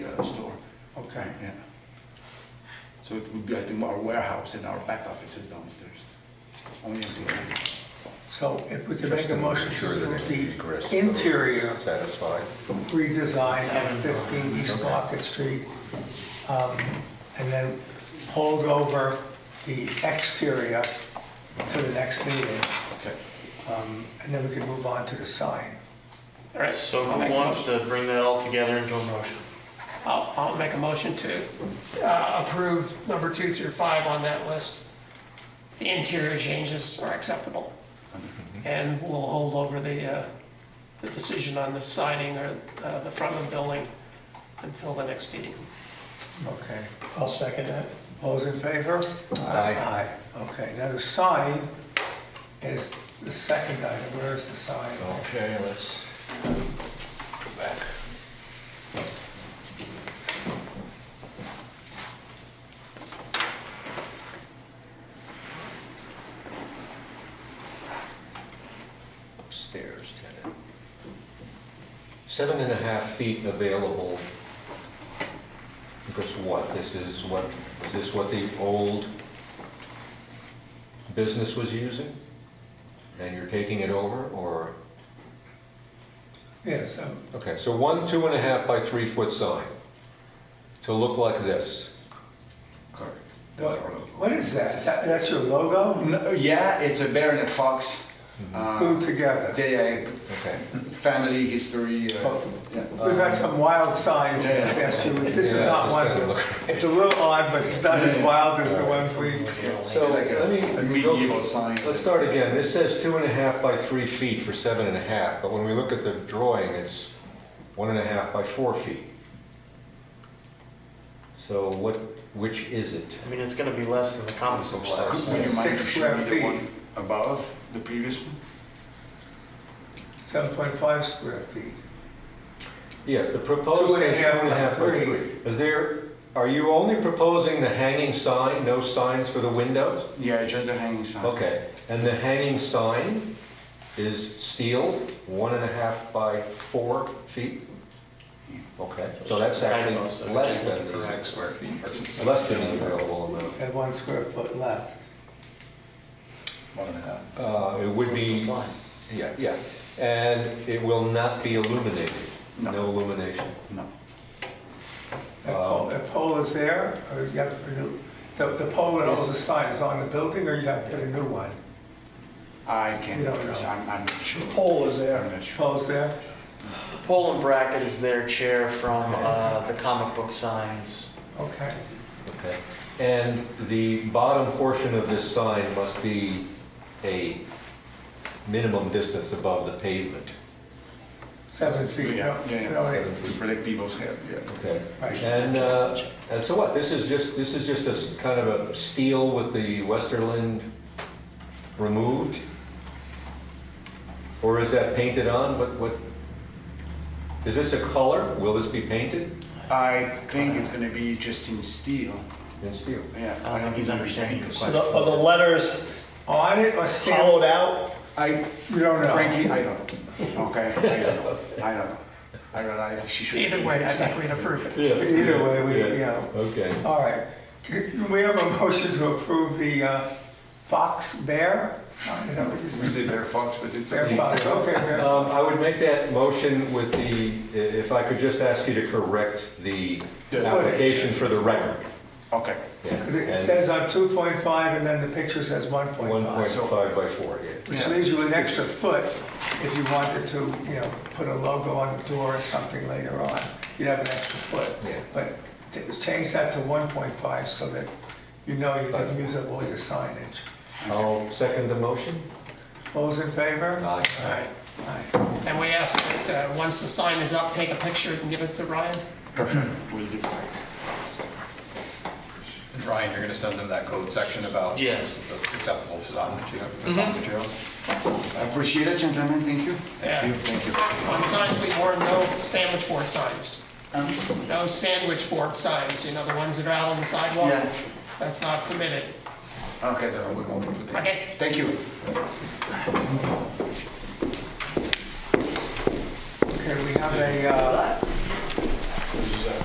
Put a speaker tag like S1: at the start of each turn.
S1: Okay, yeah. So it would be, I think, our warehouse and our back office is downstairs. Only employees.
S2: So if we could
S3: Just
S2: make a
S3: to
S2: motion
S3: make
S2: to
S3: sure that
S2: approve
S3: it agrees.
S2: the interior
S3: Satisfied.
S2: redesign of 15 East Market Street, um, and then hold over the exterior to the next meeting,
S1: Okay.
S2: um, and then we can move on to the sign.
S4: All right.
S5: So
S4: I'll make
S5: who
S4: a
S5: wants
S4: motion-
S5: to bring that all together into a motion?
S4: I'll, I'll make a motion to uh, approve number two through five on that list. The interior changes are acceptable. And we'll hold over the, uh, the decision on the siding or uh, the front of the building until the next meeting.
S2: Okay.
S6: I'll second that.
S2: All Those in favor?
S3: Aye.
S2: Okay, now the sign is the second item. Where is the sign?
S3: Okay, let's go back. Upstairs, tenant. Seven and a half feet available. Because what, this is what, is this what the old business was using? And you're taking it over, or?
S2: Yes, um,
S3: Okay, so one two and a half by three foot sign to look like this.
S1: Correct. That's
S2: what
S1: our logo.
S2: what is that? That- That's your logo
S1: No, Yeah, it's a baronet fox.
S2: Mm-hmm.
S1: Uh,
S2: glued together?
S1: They,
S3: Okay.
S1: uh, family history, uh,
S2: Oh.
S1: yeah.
S2: We've had some wild signs in the past few weeks. This is
S3: Yeah,
S2: not
S3: this
S2: one.
S3: doesn't look
S2: It's a little odd, but it's not as wild as the ones we,
S3: So
S1: It's like a-
S3: let me,
S1: a
S3: go through-
S1: medieval sign.
S3: let's start again. This says two and a half by three feet for seven and a half, but when we look at the drawing, it's one and a half by four feet. So what, which is it?
S5: I mean, it's gonna be less than the comic book
S1: Would
S5: size.
S1: you mind
S2: Six
S1: showing me
S2: square
S1: the
S2: feet.
S1: one Above the previous one?
S2: 7.5 square feet.
S3: Yeah, the proposed
S2: Two and a
S3: is two
S2: half
S3: and a
S2: by
S3: half by
S2: three.
S3: three. Is there, are you only proposing the hanging sign, no signs for the windows?
S1: Yeah, just the hanging sign.
S3: Okay, and the hanging sign is steel, one and a half by four feet? Okay, so that's actually less than the six square feet, less than the available amount.
S2: And one square foot left.
S3: Uh, It would be, yeah, yeah, and it will not be illuminated, no
S1: No.
S3: illumination.
S1: No.
S2: That pole, that pole is there, or you have to put a new, the, the pole that holds the sign is on the building, or you have to put a new one?
S1: I can't
S2: You don't
S1: address,
S2: know.
S1: I'm, I'm not sure.
S6: Pole is there.
S1: I'm not sure.
S2: Pole's there?
S5: Pole and bracket is their chair from uh, the comic book signs.
S2: Okay.
S3: Okay, and the bottom portion of this sign must be a minimum distance above the pavement.
S2: Seven feet, no?
S1: Yeah, yeah,
S2: you know, it-
S1: yeah. To protect people's hair, yeah.
S3: Okay.
S2: Right.
S3: And, uh, and so what, this is just, this is just a s- kind of a steel with the Westerland removed? Or is that painted on, what, what, is this a color? Will this be painted
S1: I think it's gonna be just in steel,
S3: in steel?
S1: yeah.
S5: I don't think he's understanding your
S6: So
S5: question.
S6: the, are the letters
S2: On it or stamped?
S6: hollowed out?
S1: I,
S2: You don't know?
S1: frankly, I don't know, okay? I don't know, I don't know. I realize she should.
S4: Either way, I think we'd approve it.
S2: Either way, we, you know.
S3: Okay,
S2: All right, Can we have a motion to approve the uh, fox bear? Is that what you
S1: We
S2: said?
S1: say bear fox, but it's.
S2: Bear fox, okay, bear.
S3: um, I would make that motion with the, if I could just ask you to correct the
S1: Yeah.
S3: application for the record.
S1: Okay,
S3: Yeah,
S2: 'Cause It
S3: and
S2: says uh, on 2.5 and then the picture says 1.5,
S3: 1.5 by 4, yeah.
S2: which leaves you an extra foot if you wanted to, you know, put a logo on the door or something later on. You'd have an extra foot.
S3: Yeah.
S2: But t- change that to 1.5 so that you know you can use up all your signage.
S3: I'll second the motion.
S2: Those in favor?
S3: Aye.
S2: Aye. Aye.
S4: And we ask that, uh, once the sign is up, take a picture and give it to Ryan.
S1: perfect, we'll do that.
S7: Ryan, you're gonna send them that code section about
S5: Yes.
S7: the acceptable facade material, facade material?
S1: I appreciate it, gentlemen, thank you.
S4: Yeah.
S1: Thank you.
S4: Uh, On signs, we warn no sandwich board signs.
S1: Um,
S4: No sandwich board signs, you know, the ones that are out on the sidewalk?
S1: Yeah.
S4: That's not permitted.
S1: Okay, then we won't put it.
S4: Okay.
S1: Thank you.
S2: Okay, we have a uh,